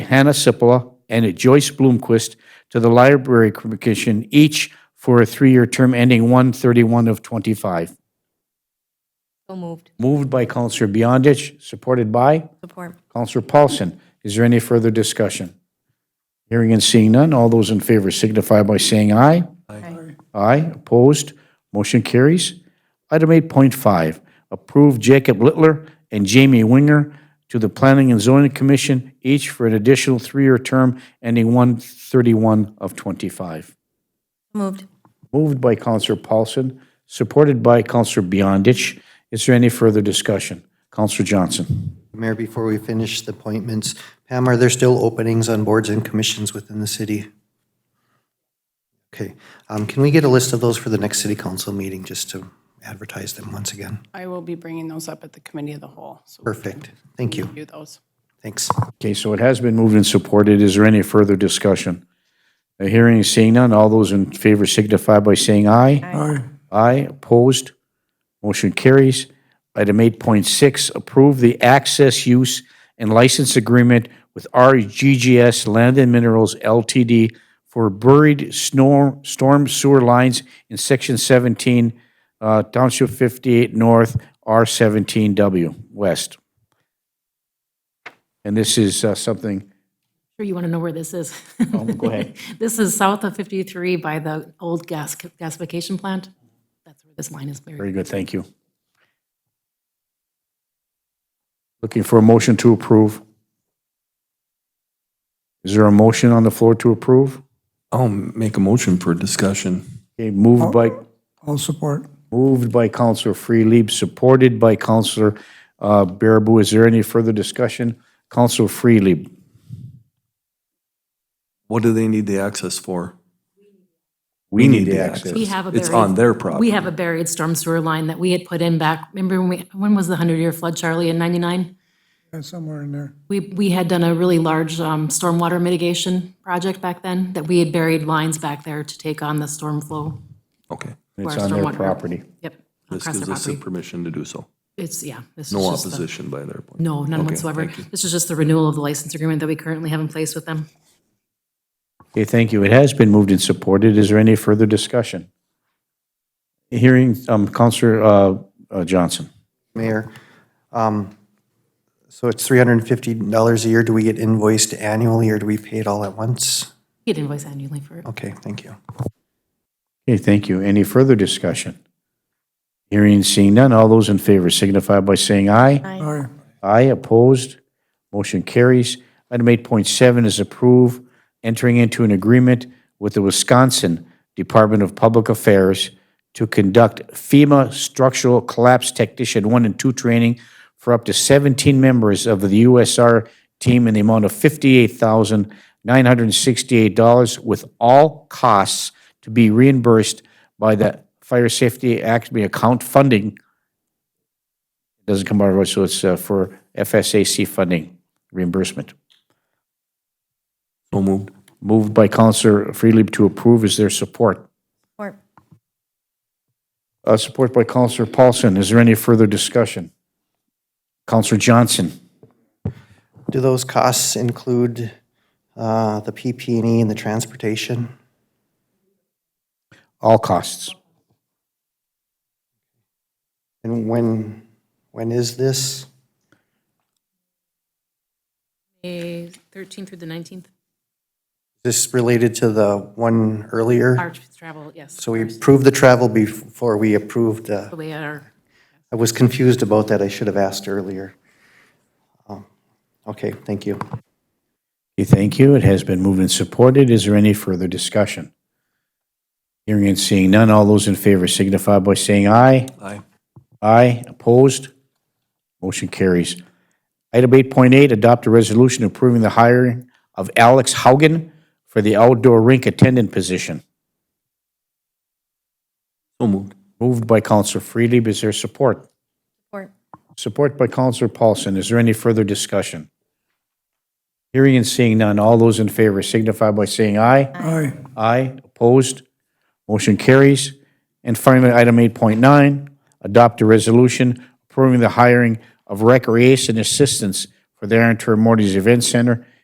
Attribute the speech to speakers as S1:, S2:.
S1: Hannah Sipola and Joyce Bloomquist to the Library Commission, each for a three-year term ending 1/31 of '25.
S2: So moved.
S1: Moved by Counselor Beyondich, supported by
S2: Support.
S1: Counselor Paulson. Is there any further discussion? Hearing and seeing none, all those in favor signify by saying aye.
S2: Aye.
S1: Aye, opposed, motion carries. Item 8.5, approve Jacob Littler and Jamie Winger to the Planning and Zoning Commission, each for an additional three-year term ending 1/31 of '25.
S2: Moved.
S1: Moved by Counselor Paulson, supported by Counselor Beyondich. Is there any further discussion? Counselor Johnson.
S3: Mayor, before we finish the appointments, Pam, are there still openings on boards and commissions within the city? Okay, um, can we get a list of those for the next city council meeting, just to advertise them once again?
S4: I will be bringing those up at the committee of the whole, so we'll
S3: Perfect, thank you,
S4: do those.
S3: thanks.
S1: Okay, so it has been moved and supported. Is there any further discussion? Uh, Hearing and seeing none, all those in favor signify by saying aye. Aye. Aye, opposed, motion carries. Item 8.6, approve the access use and license agreement with RGGS Land and Minerals LTD for buried snor- storm sewer lines in Section 17, uh, Township 58 North, R17W West. And this is uh, something,
S5: Sure you want to know where this is.
S1: oh, go ahead.
S5: This is south of 53 by the old gas gasification plant. That's where this line is buried.
S1: Very good, thank you. Looking for a motion to approve. Is there a motion on the floor to approve?
S6: I'll make a motion for discussion.
S1: Okay, moved by,
S7: I'll support.
S1: moved by Counselor Freely, supported by Counselor uh, Baraboo. Is there any further discussion? Counselor Freely,
S6: What do they need the access for?
S1: we need the access.
S5: We have a
S6: It's
S5: buried-
S6: on their
S5: We
S6: property.
S5: have a buried storm sewer line that we had put in back, remember when we, when was the 100-year flood, Charlie, in 99?
S7: Yeah, Somewhere in there.
S5: We, we had done a really large um, stormwater mitigation project back then, that we had buried lines back there to take on the storm flow.
S6: Okay.
S1: It's
S5: our
S1: on their
S5: stormwater.
S1: property.
S5: Yep,
S6: This
S5: across
S6: gives
S5: their
S6: us the
S5: property.
S6: permission to do so.
S5: It's, yeah. this is
S6: No
S5: just the-
S6: opposition by their. point.
S5: No, none
S6: Okay,
S5: whatsoever.
S6: thank you.
S5: This is just the renewal of the license agreement that we currently have in place with them.
S1: Okay, thank you. It has been moved and supported. Is there any further discussion? Hearing, um, Counselor uh, uh, Johnson.
S3: Mayor, um, so it's three hundred and fifty dollars a year, do we get invoiced annually, or do we pay it all at once?
S5: Get invoice annually for it.
S3: Okay, thank you.
S1: Okay, thank you. Any further discussion? Hearing and seeing none, all those in favor signify by saying aye.
S7: Aye.
S1: Aye, opposed, motion carries. Item 8.7 is approve entering into an agreement with the Wisconsin Department of Public Affairs to conduct FEMA Structural Collapse Technician 1 and 2 training for up to 17 members of the USR team in the amount of $58,968 with all costs to be reimbursed by the Fire Safety Act, be account funding. Doesn't come out of, our- so it's uh, for FSAC funding reimbursement.
S6: So moved.
S1: Moved by Counselor Freely to approve. Is there support?
S2: Support.
S1: Uh, Support by Counselor Paulson. Is there any further discussion? Counselor Johnson?
S3: Do those costs include, uh, the PP&E and the transportation?
S1: All costs.
S3: And when, when is this?
S5: May 13th through the 19th,
S3: This related to the one earlier?
S5: March travel, yes.
S3: So we approved the travel before we approved the,
S5: We are,
S3: I was confused about that, I should have asked earlier. Um, Okay, thank you.
S1: Okay, Thank you. It has been moved and supported. Is there any further discussion? Hearing and seeing none, all those in favor signify by saying aye.
S6: Aye.
S1: Aye, opposed? Motion carries. Item 8.8, adopt a resolution approving the hiring of Alex Haugen for the outdoor rink attendant position.
S6: So moved.
S1: Moved by Counselor Freely, is there support?
S2: Support.
S1: Support by Counselor Paulson, is there any further discussion? Hearing and seeing none, all those in favor signify by saying aye.
S7: Aye.
S1: Aye, opposed, motion carries. And finally, item 8.9, adopt a resolution approving the hiring of recreation assistants for the Aaron Termortes Event Center